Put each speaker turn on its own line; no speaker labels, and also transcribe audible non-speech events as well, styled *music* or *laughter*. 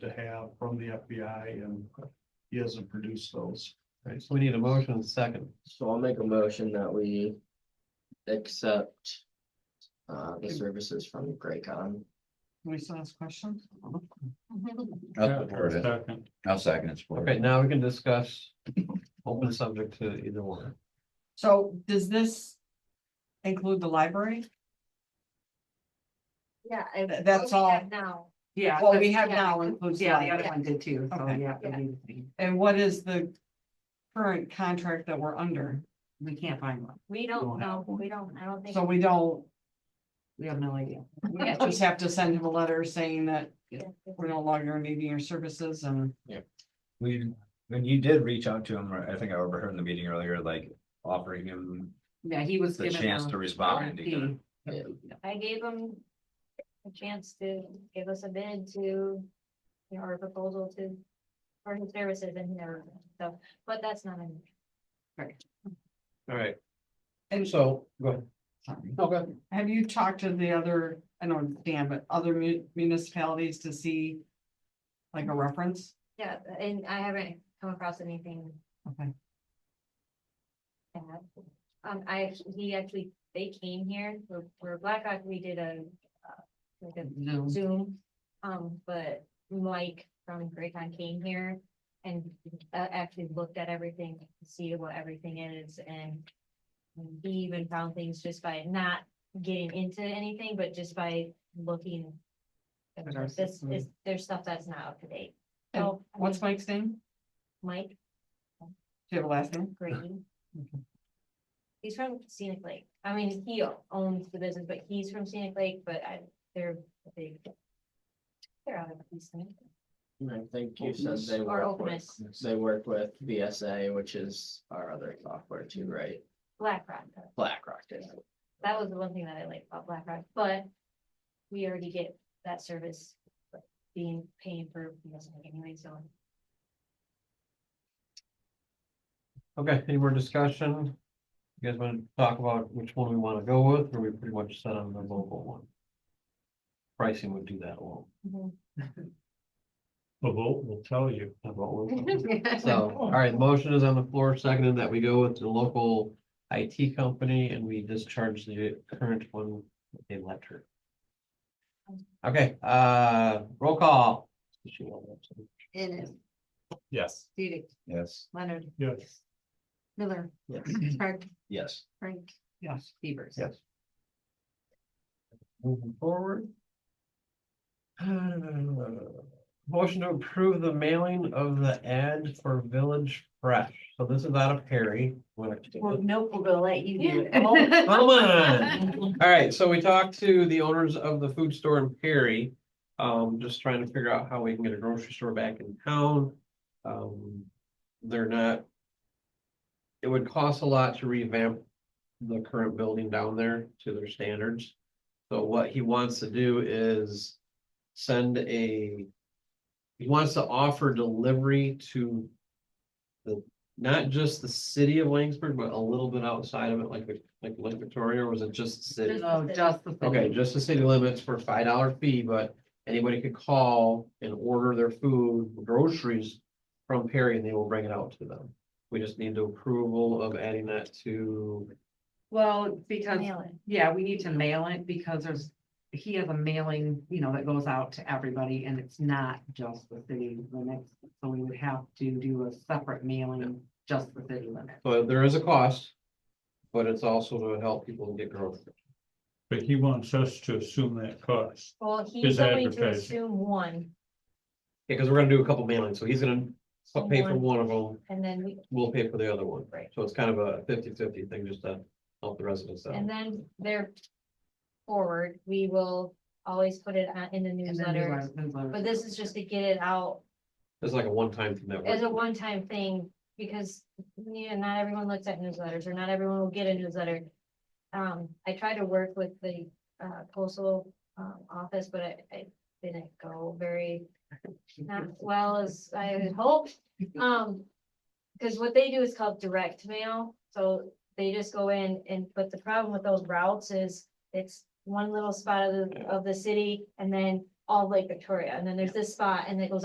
have from the FBI and he hasn't produced those.
Right, so we need a motion and a second.
So I'll make a motion that we accept uh, the services from Graycon.
we still ask questions?
I'll support it.
Second.
I'll second it. support
Okay,
it.
now we can discuss open subject to either one.
So does this include the library?
Yeah. I-
Th- that's
what we have
all.
Now,
Yeah.
What
that's-
we have
yeah,
now
I-
includes. the
Yeah, the
library.
other one did too, so
Okay.
yeah.
Yeah.
we- we-
And what is the current contract that we're under?
We can't find one,
we
Don't
don't
have
know,
one.
we don't, I don't think.
So we don't,
we have no idea.
we just have to send him a letter saying that
yeah, if
we're no longer needing your services and.
We, when you did reach out to him, or I think I overheard in the meeting earlier, like offering him
Yeah, he was
the
given.
chance
a-
to respond.
a
he didn't.
fee.
Yeah.
I gave them a chance to give us a bid to, you know, or a proposal to, for his services and he never, so, but that's not an.
All right.
And-
so, go ahead.
Sorry.
Okay.
Have you talked to the other, I don't understand, but other mu- municipalities to see? Like a reference?
Yeah, and I haven't come across anything
Okay.
bad. Um, I, he actually, they came here, for for Blackhawk, we did a, uh, like a
Zoom.
Zoom. Um, but Mike from Graycon came here and uh, actually looked at everything, to see what everything is and. He even found things just by not getting into anything, but just by looking. at
At our
This
system.
is, there's stuff that's not up to date.
And
So, I
what's
mean,
Mike's name?
Mike
Do you have a last name?
Green. He's from Scenic Lake. I mean, he owns the business, but he's from Scenic Lake, but I, they're a big. They're out of Easton
And I think you said they
or
work with,
Opus,
they work with VSA, which is our other software too, right?
BlackRock.
BlackRock did.
That was the one thing that I liked about BlackRock, but we already get that service being paid for anyway, so.
Okay, any more discussion? You guys want to talk about which one we want to go with, or we pretty much set on the local one? Pricing would do that alone.
Mm-hmm.
The vote will tell you.
How about one? So, all right, motion is on the floor, seconded that we go with the local IT company and we discharge the current one with a letter. Okay, uh, roll call.
Innes,
Yes.
Dudek,
Yes.
Leonard,
Yes.
Miller, Craig,
Yes.
Frank,
Yes.
Beavers.
Yes. Moving forward. *sighs* Uh, Motion to approve the mailing of the ad for Village Fresh. So this is out of Perry. Wanna-
nope, we're gonna let you
do it.
Come
*laughs*
on. All right, so we talked to the owners of the food store in Perry. Um, just trying to figure out how we can get a grocery store back in town. Um, they're not. It would cost a lot to revamp the current building down there to their standards. So what he wants to do is send a. He wants to offer delivery to not just the city of Langsberg, but a little bit outside of it, like, like Lake Victoria, or was it just the city?
No, Oh, just the.
Okay, just the city limits for a five dollar fee, but anybody could call and order their food, groceries from Perry and they will bring it out to them. We just need the approval of adding that to,
Well, because
Mail it.
Yeah, we need to mail it because there's, he has a mailing, you know, that goes out to everybody and it's not just the city limits. So we would have to do a separate mailing, just the city limits.
so there is a cost. But it's also to help people get groceries.
But he wants us to assume that cost.
Well,
His
he's going to
advertising.
assume one
Yeah, because we're gonna do a couple mailings, so he's gonna pay for one of them,
and then we,
we'll pay for the other one.
Right.
So it's kind of a 50-50 thing just to help the residents out.
And then there forward, we will always put it on- in the
And then do our
newsletter,
newsletter.
but this is just to get it out
It's like a one-time thing that
as a
works.
one-time thing. Because, you know, not everyone looks at newsletters or not everyone will get a newsletter. Um, I tried to work with the uh, postal um, office, but I, I didn't go very not as well as I had hoped. Um, because what they do is called direct mail, so they just go in and, but the problem with those routes is it's one little spot of the, of the city and then all Lake Victoria, and then there's this spot and it goes